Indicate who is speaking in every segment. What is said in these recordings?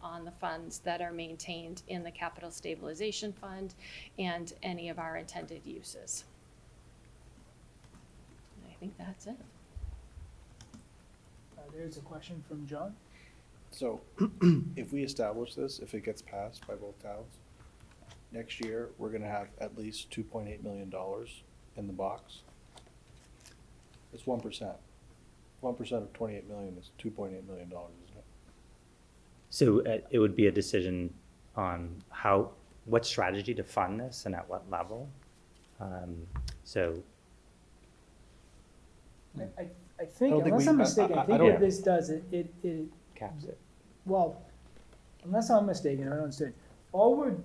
Speaker 1: on the funds that are maintained in the capital stabilization fund and any of our intended uses. And I think that's it.
Speaker 2: Uh, there's a question from John.
Speaker 3: So if we establish this, if it gets passed by both towns, next year, we're gonna have at least two point eight million dollars in the box. It's one percent. One percent of twenty-eight million is two point eight million dollars, isn't it?
Speaker 4: So uh, it would be a decision on how, what strategy to fund this and at what level. Um, So,
Speaker 2: I, I, I
Speaker 3: I
Speaker 2: think,
Speaker 3: don't think
Speaker 2: unless I'm
Speaker 3: we- I- I-
Speaker 2: mistaken, I
Speaker 3: I
Speaker 2: think
Speaker 3: don't-
Speaker 2: what this does, it, it, it,
Speaker 4: caps it.
Speaker 2: well, unless I'm mistaken, I don't understand. All we're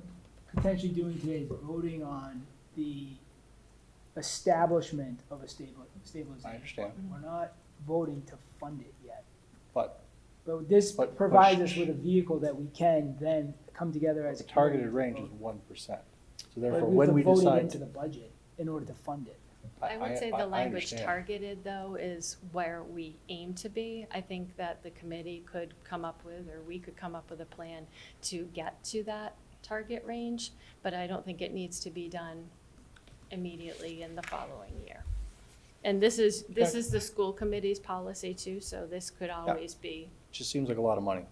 Speaker 2: potentially doing today is voting on the establishment of a stable, stabilization.
Speaker 3: I understand.
Speaker 2: fund. We're not voting to fund it yet.
Speaker 3: But
Speaker 2: But this
Speaker 3: But- but
Speaker 2: provides
Speaker 3: sh-
Speaker 2: us with a vehicle that we can then come together as.
Speaker 3: the
Speaker 2: a
Speaker 3: targeted
Speaker 2: community
Speaker 3: range
Speaker 2: to
Speaker 3: is
Speaker 2: vote.
Speaker 3: one percent. So
Speaker 2: But
Speaker 3: therefore,
Speaker 2: we have
Speaker 3: when
Speaker 2: to
Speaker 3: we
Speaker 2: vote it
Speaker 3: decide
Speaker 2: into
Speaker 3: to.
Speaker 2: the budget in order to fund it.
Speaker 1: I would say
Speaker 3: I- I
Speaker 1: the language
Speaker 3: understand.
Speaker 1: targeted, though, is where we aim to be. I think that the committee could come up with, or we could come up with a plan to get to that target range, but I don't think it needs to be done immediately in the following year. And this is, this
Speaker 3: Okay.
Speaker 1: is the school committee's policy too, so this could always be,
Speaker 3: Just seems like a lot of money.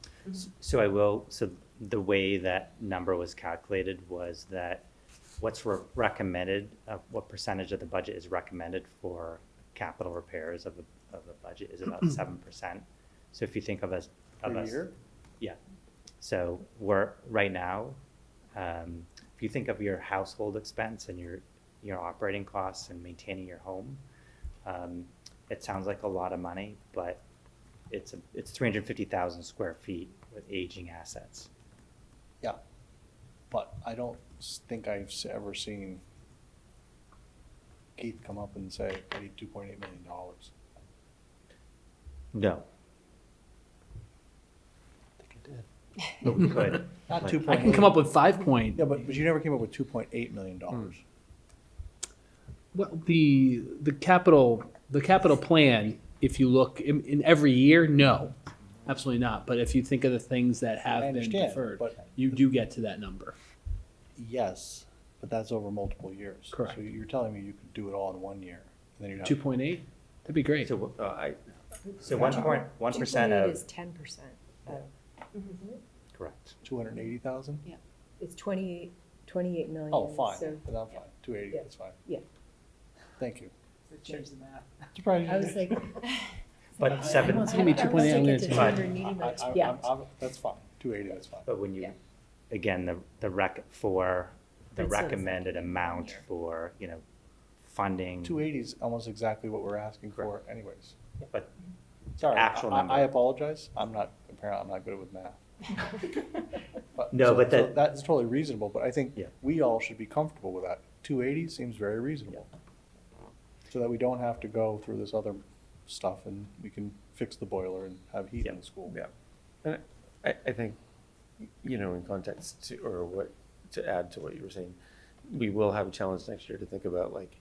Speaker 4: So I will, so the way that number was calculated was that what's re- recommended, uh, what percentage of the budget is recommended for capital repairs of the, of the budget is about seven percent. So if you think of us, of
Speaker 3: Per
Speaker 4: us.
Speaker 3: year?
Speaker 4: Yeah. So we're, right now, um, if you think of your household expense and your, your operating costs and maintaining your home, um, it sounds like a lot of money, but it's, a- it's three hundred and fifty thousand square feet with aging assets.
Speaker 3: Yeah, but I don't s- think I've s- ever seen Keith come up and say, I need two point eight million dollars.
Speaker 4: No. But we could.
Speaker 3: Not
Speaker 4: Like,
Speaker 3: two
Speaker 5: I
Speaker 3: point
Speaker 5: can
Speaker 3: eight.
Speaker 5: come up with five point.
Speaker 3: Yeah, but, but you never came up with two point eight million dollars.
Speaker 5: Well, the the capital the capital plan. If you look in, in every year, no, absolutely not. But if you think of the things that have
Speaker 3: I
Speaker 5: been
Speaker 3: understand,
Speaker 5: deferred,
Speaker 3: but-
Speaker 5: you do get to that number.
Speaker 3: Yes, but that's over multiple years.
Speaker 5: Correct.
Speaker 3: So you're telling me you could do it all in one year, and then you'd have.
Speaker 5: Two point eight. That'd be great.
Speaker 4: So, uh, I, so one point, one percent
Speaker 6: 2.8
Speaker 4: of,
Speaker 6: is ten percent.
Speaker 4: correct.
Speaker 3: Two hundred and eighty thousand?
Speaker 6: It's twenty-eight, twenty-eight million.
Speaker 3: Oh, fine,
Speaker 6: so-
Speaker 3: then I'm fine, two eighty,
Speaker 6: Yeah.
Speaker 3: that's fine.
Speaker 6: Yeah.
Speaker 3: Thank you.
Speaker 2: So Change the math.
Speaker 6: I was like.
Speaker 4: But seven,
Speaker 5: It's gonna be
Speaker 6: I- I
Speaker 5: 2.8,
Speaker 6: was
Speaker 5: I'm
Speaker 6: thinking
Speaker 5: gonna
Speaker 6: to
Speaker 5: take
Speaker 4: it.
Speaker 6: 280
Speaker 3: I-
Speaker 6: million.
Speaker 3: I- I'm-
Speaker 6: Yeah,
Speaker 3: I'm- That's fine, two eighty, that's fine.
Speaker 4: But when you,
Speaker 6: Yeah.
Speaker 4: again, the, the rec, for the
Speaker 6: That's what it's
Speaker 4: recommended amount for, you know, funding,
Speaker 3: Two eighty is almost exactly what we're asking for anyways.
Speaker 4: but
Speaker 3: Sorry,
Speaker 4: actual
Speaker 3: I- I- I
Speaker 4: number.
Speaker 3: apologize. I'm not, apparently I'm not good with math. But-
Speaker 4: No,
Speaker 3: so-
Speaker 4: but
Speaker 3: so
Speaker 4: that-
Speaker 3: That's totally reasonable, but I think
Speaker 4: Yeah.
Speaker 3: we all should be comfortable with that. Two eighty seems very reasonable. So that we don't have to go through this other stuff and we can fix the boiler and have heat in
Speaker 4: Yeah.
Speaker 3: the school.
Speaker 7: Yeah, and I, I think, you know, in context to, or what, to add to what you were saying, we will have a challenge next year to think about like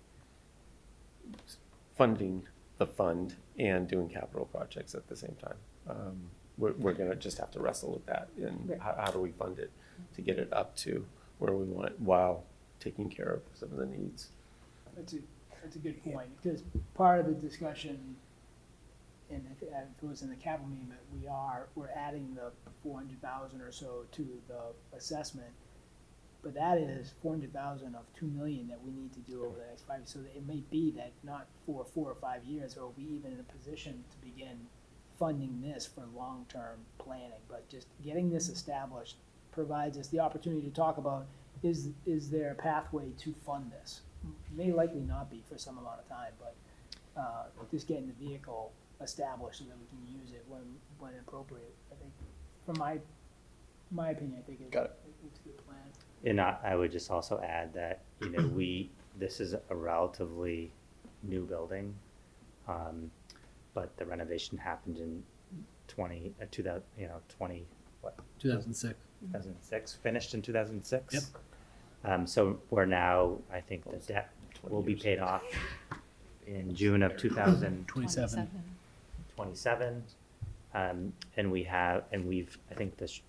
Speaker 7: funding the fund and doing capital projects at the same time. Um, We're, we're gonna just have to wrestle with that and
Speaker 6: Right.
Speaker 7: how, how do we fund it to get it up to where we want it while taking care of some of the needs.
Speaker 2: That's a, that's a good point, because part of the discussion, and if if it was in the capital meeting, but we are, we're adding the four hundred thousand or so to the assessment. But that is four hundred thousand of two million that we need to do over the next five, so it may be that not for four or five years, are we even in a position to begin funding this for long-term planning, but just getting this established provides us the opportunity to talk about, is, is there a pathway to fund this? May likely not be for some amount of time, but, uh, just getting the vehicle established so that we can use it when, when appropriate, I think, from my, my opinion, I think it-
Speaker 3: Got it.
Speaker 2: it's a good plan.
Speaker 4: and I, I would just also add that, you know, we, this is a relatively new building. Um, but the renovation happened in twenty, uh, two thousand, you know, twenty, what,
Speaker 5: Two thousand six.
Speaker 6: Mm-hmm.
Speaker 4: 2006, finished in 2006.
Speaker 5: Yep.
Speaker 4: Um, so we're now, I think the
Speaker 7: Almost
Speaker 4: debt will be
Speaker 7: 20 years.
Speaker 4: paid off in June of 2027.
Speaker 5: Twenty-seven.
Speaker 4: Um, and we have, and we've, I think the, sh-